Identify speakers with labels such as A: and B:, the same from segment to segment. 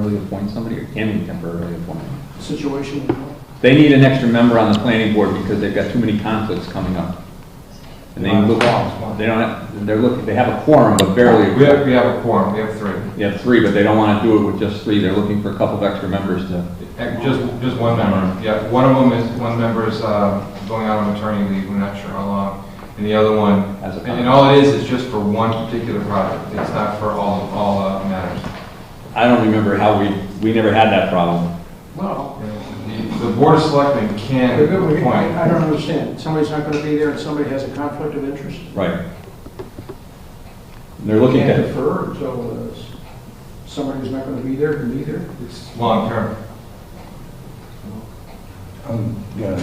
A: temporarily appoint somebody, or can we temporarily appoint? them?
B: situation.
A: They need an extra member on the planning board because they've got too many conflicts coming up. And they look, they don't, have- they're looking, they have a quorum, but barely.
C: We have, we have a quorum, we have three.
A: They have three, but they don't want to do it with just three, they're looking for a couple of extra members to.
C: Uh, Just, just one member, yeah. One of them is, one member is uh, going out on maternity leave, we're not sure how long. And the other one,
A: As a-
C: and and all it is, is just for one particular project. It's not for all, all uh, matters.
A: I don't remember how we, we never had that problem.
B: Well,
C: The- The Board of Selectmen
B: I
C: can
B: I
C: appoint.
B: don't understand. Somebody's not going to be there and somebody has a conflict of interest?
A: Right. And They're looking
B: Can't
A: to,
B: defer until uh, s- somebody who's not going to be there can be there?
C: It's long-term.
D: Um, Yeah.
A: I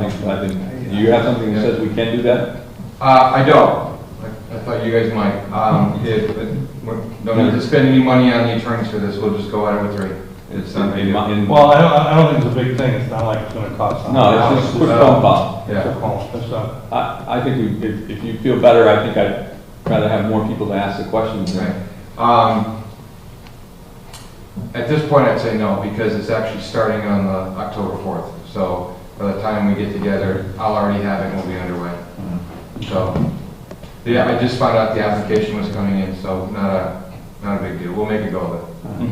A: think, I think, do you have something that says we can do that?
C: Uh, I don't. I I thought you guys might. Um, If, but we don't need to spend any money on the attorneys for this, we'll just go out with three. It's not big
A: In
C: deal.
A: my- in-
D: Well, I don't, I don't think it's a big thing, it's not like it's gonna cost.
A: No, it's just a quick phone call.
D: It's a
C: Yeah.
D: call, it's a,
A: I, I think we, if, if you feel better, I think I'd rather have more people to ask the questions. Uh, than-
C: Right. Um, At this point, I'd say no, because it's actually starting on the October 4th. So by the time we get together, I'll already have it, and we'll be underway.
A: Mm-hmm.
C: So, yeah, I just found out the application was coming in, so not a, not a big deal. We'll make a go of it.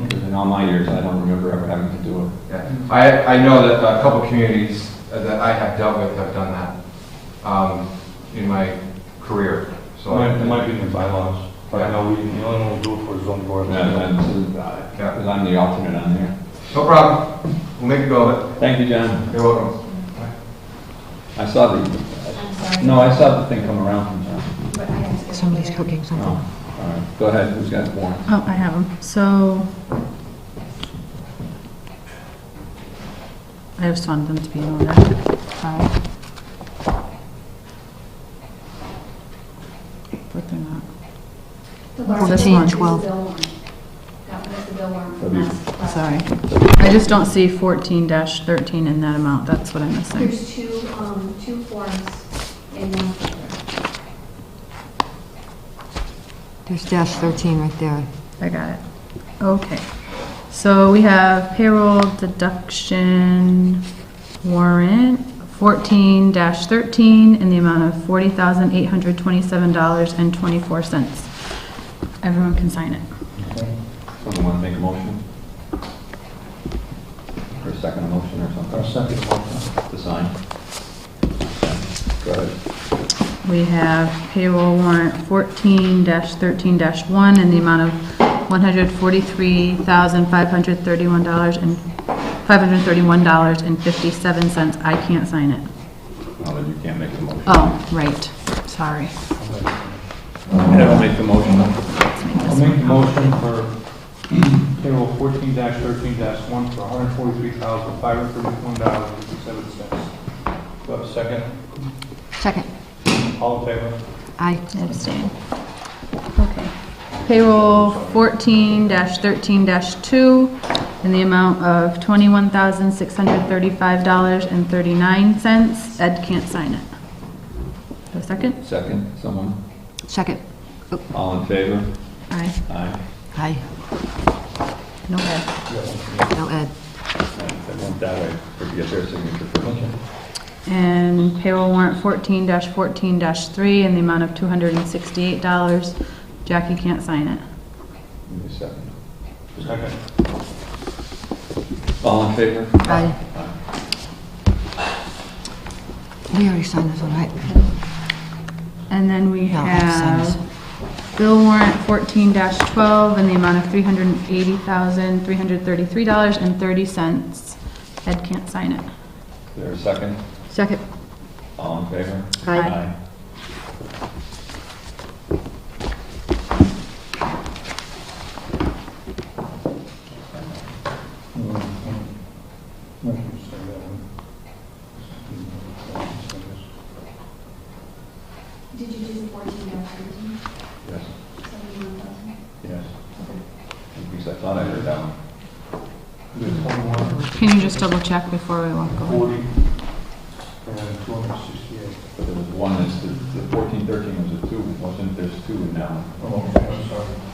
A: Because uh, in all my years, I don't remember ever having to do it.
C: Yeah. I, I know that a couple communities that I have dealt with have done that um, in my career, so.
D: might- it might be in the bylaws, but I know we, the only one we'll do it for is zoning board.
A: And I'm- Because I'm the alternate on there.
C: No problem. We'll make a go of
A: Thank you, John.
C: it. You're welcome.
A: I saw the,
E: I'm sorry.
A: no, I saw the thing come around from John.
E: but I have to go.
F: Somebody's cooking something.
A: Oh, all right. Go ahead, who's got warrants?
F: Oh, I have them. So I just wanted them to be in order. Sorry. But they're not.
E: The large
F: This
E: thing
F: one.
E: is the
F: Twelve.
E: bill warrant. That was the bill warrant
A: That'd
E: from
A: be-
E: last.
F: Sorry. I just don't see 14-13 in that amount. That's what I'm missing.
E: There's two, um, two forms in one folder.
G: There's dash 13 right there.
F: I got it. Okay. So we have payroll deduction warrant fourteen thirteen in the amount of forty thousand eight hundred twenty-seven dollars and twenty-four cents. Everyone can sign it.
A: Someone want to make a motion? Or a second motion or something?
D: second one.
A: To sign? Go ahead.
F: We have payroll warrant fourteen thirteen one in the amount of one hundred forty-three thousand five hundred thirty-one dollars and, five hundred thirty-one dollars and fifty-seven cents. I can't sign it.
A: No, then you can't make the motion.
F: Oh, right. Sorry.
A: I don't make the motion.
F: Let's make
D: I'll
F: this
D: make the
F: one.
D: motion for payroll fourteen thirteen one for hundred forty-three thousand, five hundred thirty-one dollars and fifty-seven cents. Do I have a second?
G: Second.
D: All in favor?
G: Aye.
F: Abstain. Okay. Payroll fourteen thirteen two in the amount of twenty-one thousand, six hundred thirty-five dollars and thirty-nine cents. Ed can't sign it. A second?
A: Second, someone?
G: Second.
A: All in favor?
F: Aye.
A: Aye.
G: Aye.
F: No Ed.
G: No, Ed.
A: I want that way, for to get their signature first.
F: And payroll warrant fourteen fourteen three in the amount of two hundred and sixty-eight dollars. Jackie can't sign it.
A: Give me a second.
D: Second.
A: All in favor?
G: Aye. We already signed this one, right?
F: And then we
G: No, I've seen this.
F: have bill warrant fourteen twelve in the amount of three hundred and eighty thousand, three hundred thirty-three dollars and thirty cents. Ed can't sign it.
A: Is there a second?
G: Second.
A: All in favor?
G: Aye.
E: Did you do the fourteen dash thirteen?
A: Yes, yes. Because I thought I heard that one.
F: Can you just double check before we walk away?
D: Forty, and Uh, two hundred sixty-eight.
A: But there was one, that's the the 14, 13 was a two, wasn't, it? there's two in that one.
D: Oh, I'm sorry.